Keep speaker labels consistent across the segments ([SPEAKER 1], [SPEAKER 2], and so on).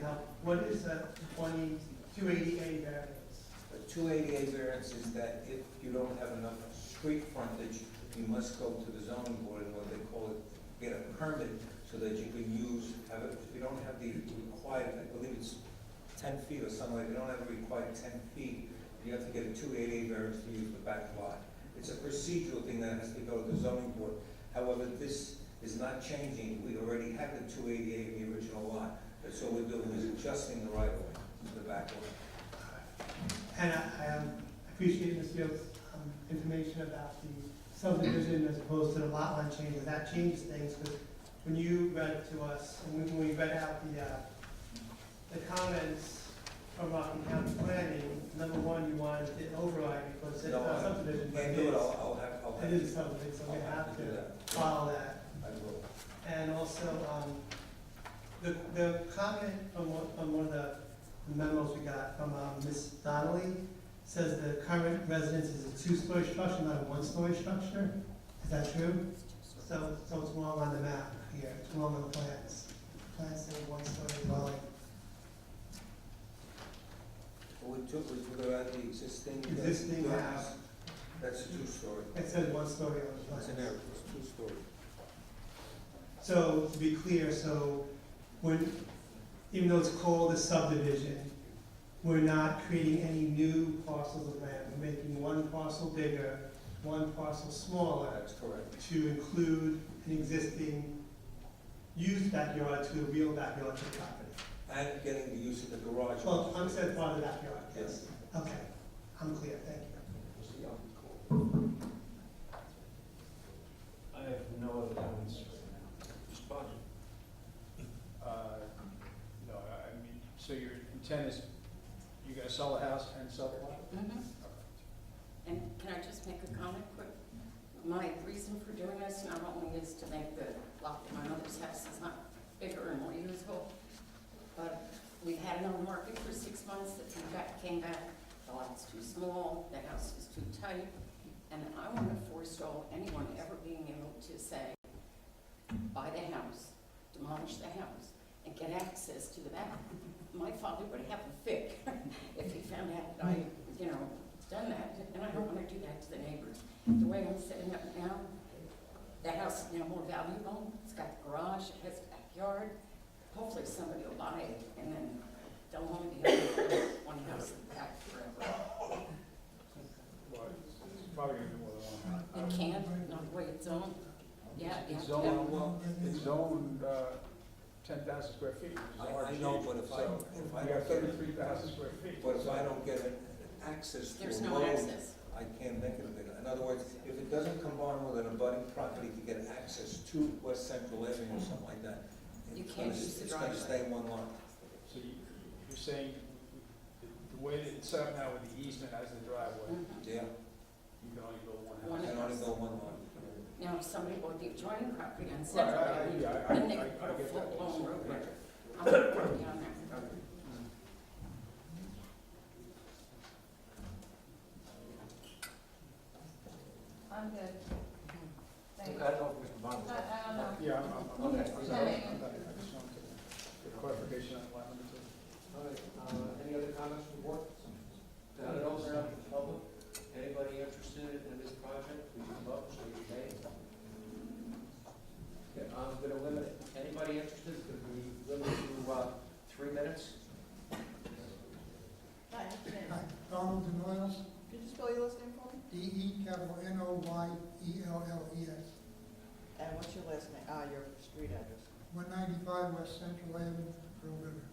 [SPEAKER 1] Now, what is a twenty, two eighty A variance?
[SPEAKER 2] The two eighty-eight variance is that if you don't have enough street frontage, you must go to the zoning board and what they call it, get a permit so that you can use, have it, if you don't have the required, I believe it's ten feet or something, if you don't have the required ten feet, you have to get a two eighty-eight variance to use the back lot. It's a procedural thing that has to go to the zoning board. However, this is not changing, we already had the two eighty-eight in the original lot. That's all we're doing is adjusting the right of way to the back lot.
[SPEAKER 1] And I, I um, appreciate Ms. Fields' um, information about the subdivision as opposed to the lot line changes. That changes things, because when you read it to us, and when- when we read out the, uh, the comments from Rockland County Planning, number one, you wanted it override because it's
[SPEAKER 2] No,
[SPEAKER 1] not
[SPEAKER 2] I-
[SPEAKER 1] subdivision, but
[SPEAKER 2] Can't
[SPEAKER 1] it
[SPEAKER 2] do it,
[SPEAKER 1] is.
[SPEAKER 2] I'll, I'll have, I'll have.
[SPEAKER 1] It is a subdivision, so we
[SPEAKER 2] I'll
[SPEAKER 1] have
[SPEAKER 2] do
[SPEAKER 1] to
[SPEAKER 2] that.
[SPEAKER 1] follow that.
[SPEAKER 2] I will.
[SPEAKER 1] And also, um, the, the comment from one, from one of the memos we got from, um, Ms. Donnelly says the current residence is a two-story structure, not a one-story structure. Is that true? So, so it's wrong on the map here, it's wrong on the plans. Plans say one-story dwelling.
[SPEAKER 2] What we took was we got out the existing. uh,
[SPEAKER 1] Existing
[SPEAKER 2] dwellings.
[SPEAKER 1] house.
[SPEAKER 2] That's a two-story.
[SPEAKER 1] It says one-story on the
[SPEAKER 2] It's
[SPEAKER 1] plans.
[SPEAKER 2] an error, it's two-story.
[SPEAKER 1] So to be clear, so when, even though it's called a subdivision, we're not creating any new parcels of land. We're making one parcel bigger, one parcel smaller
[SPEAKER 2] That's correct.
[SPEAKER 1] to include an existing used backyard to a real backyard to the property.
[SPEAKER 2] And getting the use of the garage.
[SPEAKER 1] Well, I'm saying part of the backyard, yes.
[SPEAKER 2] Yes.
[SPEAKER 1] Okay, I'm clear, thank you.
[SPEAKER 3] I have no other comments right
[SPEAKER 2] Mr. Bodnar?
[SPEAKER 3] now. Uh, No, I I mean, so your intent is, you're gonna sell the house and sell the lot?
[SPEAKER 4] Mhm. And can I just make a comment quick? My reason for doing this not only is to make the lot in my mother's house is not bigger and more usable, but we had it on the market for six months, the feedback came back, the lot's too small, the house is too tight, and I want to forestall anyone ever being able to say, buy the house, demolish the house, and get access to the back. My father would have a fit if he found out that I, you know, done that, and I don't wanna do that to the neighbors. The way I'm setting up now, the house is now more valuable, it's got the garage, it has a backyard. Hopefully somebody will buy it, and then they'll only be able to live in one house in the back forever.
[SPEAKER 3] Well, it's Probably gonna be more than one.
[SPEAKER 4] It can, not the way it's zoned, yeah, yeah.
[SPEAKER 3] It's zoned, well, it's zoned, uh, ten thousand square feet. which is
[SPEAKER 2] I- I
[SPEAKER 3] RG,
[SPEAKER 2] know, but if I-
[SPEAKER 3] so
[SPEAKER 2] if I-
[SPEAKER 3] You got thirty-three thousand square feet.
[SPEAKER 2] But if I don't get an- an access to
[SPEAKER 4] There's
[SPEAKER 2] a
[SPEAKER 4] no
[SPEAKER 2] road,
[SPEAKER 4] access.
[SPEAKER 2] I can't make it a bigger. In other words, if it doesn't combine with an abutting property to get access to West Central Avenue or something like that,
[SPEAKER 4] You
[SPEAKER 2] it's
[SPEAKER 4] can't
[SPEAKER 2] gonna-
[SPEAKER 4] use the
[SPEAKER 2] It's gonna
[SPEAKER 4] driveway.
[SPEAKER 2] stay in one lot.
[SPEAKER 3] So you, you're saying, the- the way that it's set up now with the easement as the driveway,
[SPEAKER 4] Mhm.
[SPEAKER 2] Yeah,
[SPEAKER 3] you can only build one house.
[SPEAKER 4] One
[SPEAKER 2] I can only
[SPEAKER 4] house.
[SPEAKER 2] go one lot.
[SPEAKER 4] Now, if somebody bought the adjoining property on
[SPEAKER 3] Right,
[SPEAKER 4] Central
[SPEAKER 3] I, I,
[SPEAKER 4] Avenue,
[SPEAKER 3] yeah, I, I I
[SPEAKER 4] then they could put a
[SPEAKER 3] get that.
[SPEAKER 4] full-blown road
[SPEAKER 3] Yeah.
[SPEAKER 4] there. I'm not working on that.
[SPEAKER 5] I'm good. Thank you.
[SPEAKER 2] I don't know if Mr. Bonner.
[SPEAKER 5] I, I don't know.
[SPEAKER 3] Yeah, I'm, I'm, I'm, I'm,
[SPEAKER 5] Okay.
[SPEAKER 3] sorry. I'm not- I just wanted to get clarification on the lot number two.
[SPEAKER 6] All right, uh, any other comments from board? Now, it opens up to the public. Anybody interested in this project, please come up, show your name. Okay, I'm gonna limit, anybody interested, it's gonna be limited to, uh, three minutes.
[SPEAKER 5] Hi, I'm Shannon.
[SPEAKER 7] Hi, Donald Denoyles,
[SPEAKER 5] Could you spell your last name for me?
[SPEAKER 7] D-E capital E N-O-Y-E-L-L-E-S,
[SPEAKER 5] And what's your last name, ah, your street address?
[SPEAKER 7] 195 West Central Avenue, Pearl River.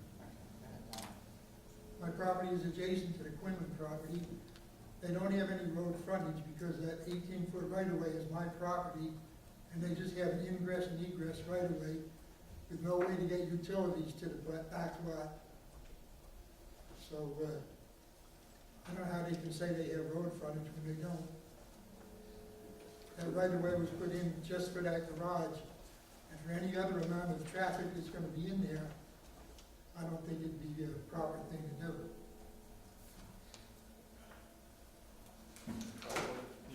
[SPEAKER 7] My property is adjacent to the Quinlan property. They don't have any road frontage because that 18-foot right-of-way is my property, and they just have an ingress and egress right-of-way with no way to get utilities to the ba- back lot. So, uh, I don't know how they can say they have road frontage when they don't. That right-of-way was put in just for that garage, and for any other amount of traffic that's gonna be in there, I don't think it'd be a proper thing to do.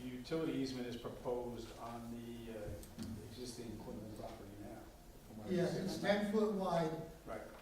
[SPEAKER 3] The utility easement is proposed on the uh, existing Quinlan property now. from what I
[SPEAKER 7] Yes,
[SPEAKER 3] see.
[SPEAKER 7] it's ten foot wide,
[SPEAKER 3] Right,